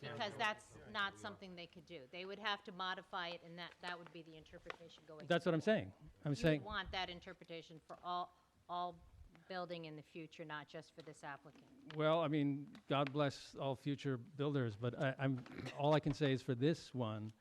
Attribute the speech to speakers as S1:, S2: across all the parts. S1: because that's not something they could do. They would have to modify it, and that, that would be the interpretation going.
S2: That's what I'm saying.
S1: You
S2: I'm
S1: would
S2: saying,
S1: want that interpretation for all, all building in the future, not just for this applicant.
S2: well, I mean, God bless all future builders, but I, I'm, all I can say is for this one,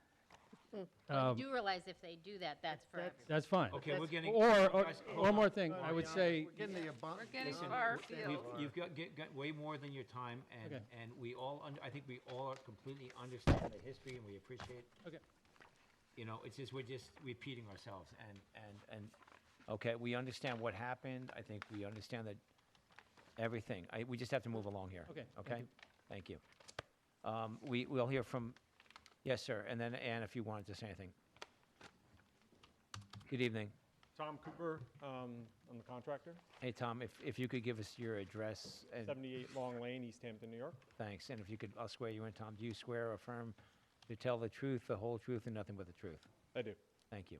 S1: But Hmm. you do realize if they do that, that's for
S3: That's-
S1: everyone.
S2: Um, that's fine.
S4: Okay, we're getting.
S2: Or, or,
S4: guys, hold on.
S2: one more thing, I would say,
S3: We're getting the abun-
S5: We're getting
S3: Listen, we're-
S5: far afield.
S4: We've- You've got, get- got way more than your time, and,
S2: Okay.
S4: and we all, un- I think we all completely understand the history, and we appreciate,
S2: okay,
S4: you know, it's just, we're just repeating ourselves, and, and, and, okay, we understand what happened, I think we understand that, everything, I, we just have to move along here.
S2: Okay, thank
S4: Okay?
S2: you.
S4: Thank you. Um, we, we'll hear from, yes, sir, and then Ann, if you wanted to say anything. Good evening.
S6: Tom Cooper, um, I'm the contractor,
S4: Hey, Tom, if, if you could give us your address and
S6: 78 Long Lane, East Hampton, New York.
S4: Thanks, and if you could, I'll swear you in, Tom. Do you swear or affirm to tell the truth, the whole truth, and nothing but the truth?
S6: I do.
S4: Thank you.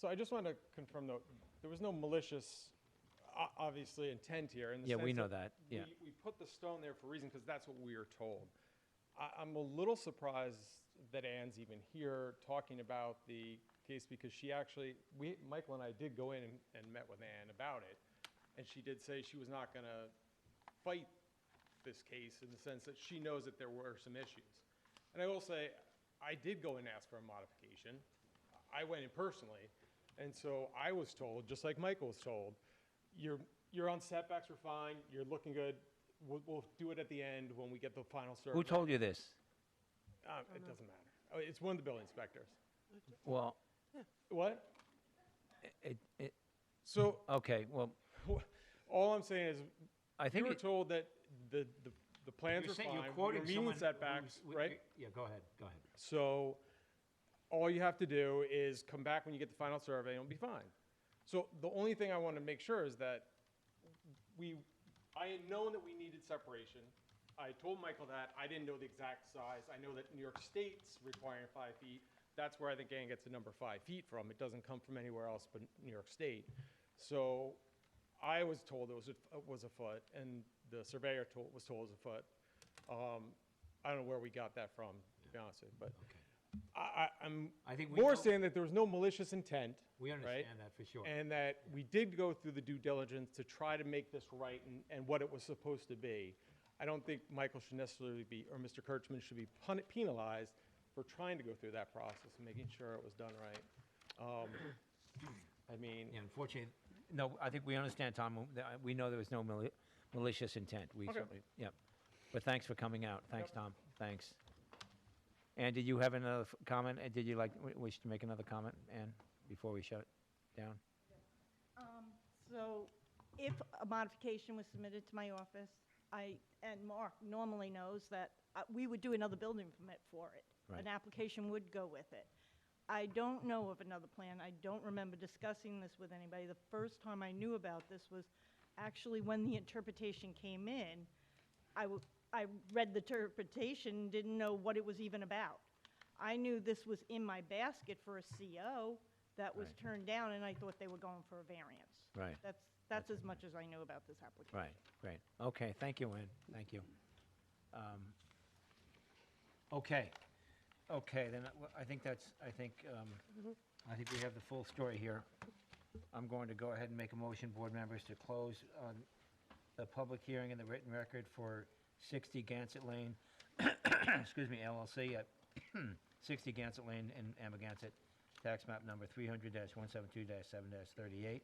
S6: So I just want to confirm, though, there was no malicious, o- obviously, intent here in the
S4: Yeah, we
S6: sense
S4: know that, yeah.
S6: we- We put the stone there for a reason, because that's what we were told. I, I'm a little surprised that Ann's even here talking about the case, because she actually, we, Michael and I did go in and, and met with Ann about it, and she did say she was not going to fight this case in the sense that she knows that there were some issues. And I will say, I did go and ask for a modification. I went in personally, and so I was told, just like Michael was told, you're, you're on setbacks, we're fine, you're looking good, we'll, we'll do it at the end when we get the final survey.
S4: Who told you this?
S6: Um, it doesn't matter. Oh, It's one of the building inspectors.
S4: Well,
S6: What?
S4: it, it,
S6: So
S4: okay, well,
S6: all I'm saying is,
S4: I
S6: you
S4: think.
S6: were
S4: it-
S6: told that the, the, the plans were fine, we were meeting setbacks, right?
S4: Yeah, go ahead, go ahead.
S6: So all you have to do is come back when you get the final survey and it'll be fine. So the only thing I want to make sure is that we, I had known that we needed separation. I told Michael that. I didn't know the exact size. I know that New York State's requiring five feet. That's where I think Ann gets the number five feet from. It doesn't come from anywhere else but New York State. So I was told it was, a- it was a foot, and the surveyor told, was told it was a foot. Um, I don't know where we got that from, to be honest with you, but I, I, I'm
S4: I think we know-
S6: more saying that there was no malicious intent.
S4: We
S6: right?
S4: understand that for sure.
S6: And that we did go through the due diligence to try to make this right and, and what it was supposed to be. I don't think Michael should necessarily be, or Mr. Kirchman should be pun- penalized for trying to go through that process and making sure it was done right. Um, I
S4: Yeah,
S6: mean,
S4: unfortunately, no, I think we understand, Tom. that- We know there was no mali- malicious intent. We
S6: Okay.
S4: certainly, yep. But thanks for coming out. Thanks, Tom. Thanks. And did you have another f- comment? And did you like, w- wish to make another comment, Ann, before we shut it down?
S7: Um, So if a modification was submitted to my office, I, and Mark normally knows that uh, we would do another building permit for it.
S4: Right.
S7: An application would go with it. I don't know of another plan. I don't remember discussing this with anybody. The first time I knew about this was actually when the interpretation came in. I, w- I read the interpretation, didn't know what it was even about. I knew this was in my basket for a CO that was
S4: Right.
S7: turned down, and I thought they were going for a variance.
S4: Right.
S7: That's, that's as much as I know about this application.
S4: Right, great. Okay, thank you, Ann. Thank you. Um, Okay, okay, then uh, I- I think that's, I think, um, I think we have the full story here. I'm going to go ahead and make a motion, board members, to close um, the public hearing and the written record for 60 Gansett Lane, excuse me, LLC at 60 Gansett Lane in Amagansett, tax map number 300-172-7-38.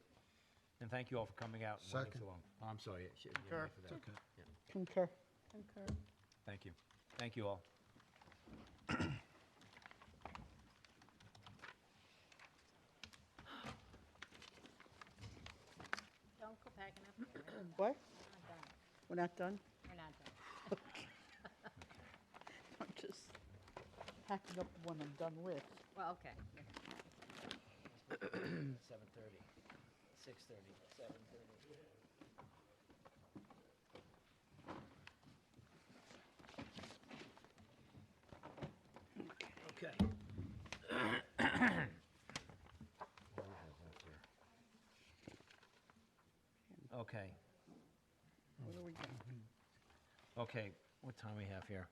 S4: And thank you all for coming out. and waiting so
S3: Second.
S4: long. I'm sorry. it should- yeah,
S3: Sure.
S4: for that. Yeah,
S5: Concur.
S4: Thank you. Thank you all.
S1: Don't go packing up. We're not
S5: What?
S1: done.
S5: We're not done?
S1: We're not done.
S5: I'm just packing up the one I'm done with.
S1: Well, okay.
S4: 7:30, 6:30, 7:30. Okay. Okay,
S5: Where are we going?
S4: okay, what time we have here?